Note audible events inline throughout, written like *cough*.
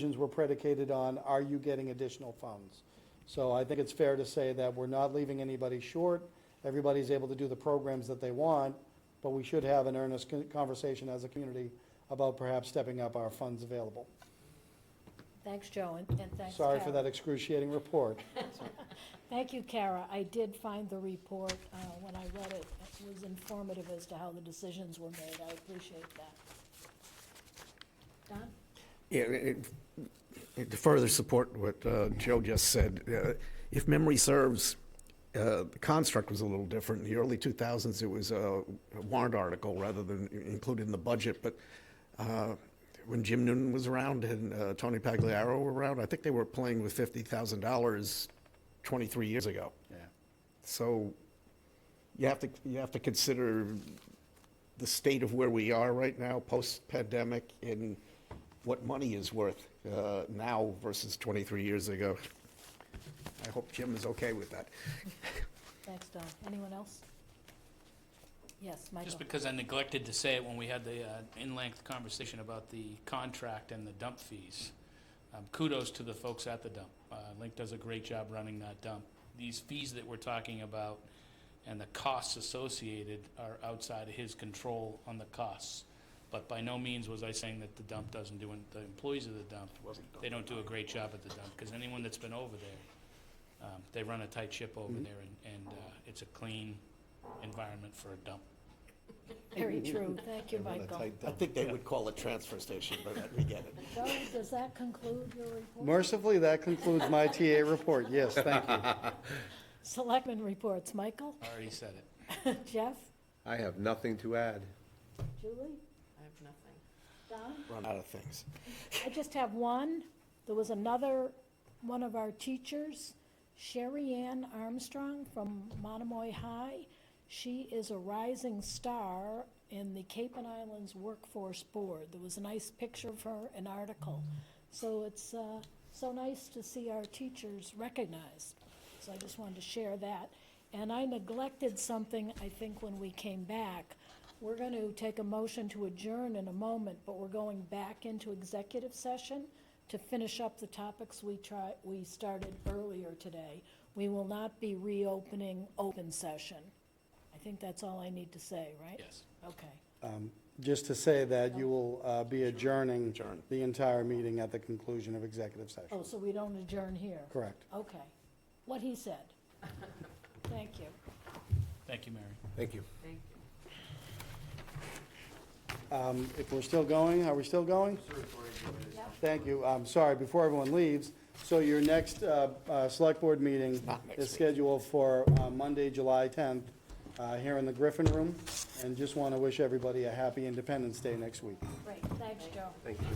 decisions were predicated on, are you getting additional funds? So I think it's fair to say that we're not leaving anybody short. Everybody's able to do the programs that they want, but we should have an earnest con- conversation as a community about perhaps stepping up our funds available. Thanks, Joe, and and thanks, Kara. Sorry for that excruciating report. Thank you, Kara. I did find the report, uh, when I read it, it was informative as to how the decisions were made. I appreciate that. Don? Yeah, it- it- To further support what uh, Joe just said, uh, if memory serves, uh, the construct was a little different. In the early 2000s, it was a warrant article rather than included in the budget, but uh, when Jim Noonan was around and uh, Tony Pagliaro were around, I think they were playing with $50,000 23 years ago. So you have to, you have to consider the state of where we are right now, post-pandemic, and what money is worth uh, now versus 23 years ago. I hope Jim is okay with that. Thanks, Don. Anyone else? Yes, Michael. Just because I neglected to say it when we had the uh, in-length conversation about the contract and the dump fees. Um, Kudos to the folks at the dump. Uh, Link does a great job running that dump. These fees that we're talking about and the costs associated are outside of his control on the costs. But by no means was I saying that the dump doesn't do, an- the employees of the dump, they don't do a great job at the dump, because anyone that's been over there, um, they run a tight ship over there, and, and uh, it's a clean environment for a dump. *laughs* Very true. Thank you, Michael. I think they would call it transfer station, but we get it. Joe, does that conclude your report? Mercifully, that concludes my TA report. Yes, thank you. Selectmen reports. Michael? *laughs* I already said it. Jeff? I have nothing to add. Julie? I have nothing. Don? Run out of things. I just have one. There was another, one of our teachers, Sherry Ann Armstrong from Monomoy High. She is a rising star in the Cape and Islands Workforce Board. There was a nice picture of her, an article. So it's uh, so nice to see our teachers recognized. So I just wanted to share that. And I neglected something, I think, when we came back. We're going to take a motion to adjourn in a moment, but we're going back into executive session to finish up the topics we try, we started earlier today. We will not be reopening open session. I think that's all I need to say, right? Yes. Okay. Just to say that you will uh, be adjourning the entire meeting at the conclusion of executive Oh, session. so we don't adjourn here? Correct. Okay. What he said. Thank you. Thank you, Mary. Thank you. Thank you. Um, If we're still going, are we still going? Thank you. I'm sorry, before everyone leaves, so your next uh, uh, Select Board meeting not next is week. scheduled for uh, Monday, July 10th, uh, here in the Griffin Room, and just want to wish everybody a happy Independence Day next week. Great, thanks, Joe. Thank you.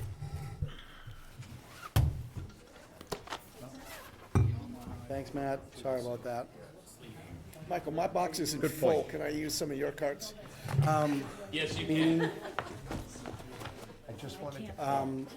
Thanks, Matt. Sorry about that. Michael, my box isn't full. Can I use some of your cards? Yes, you can. I just wanted to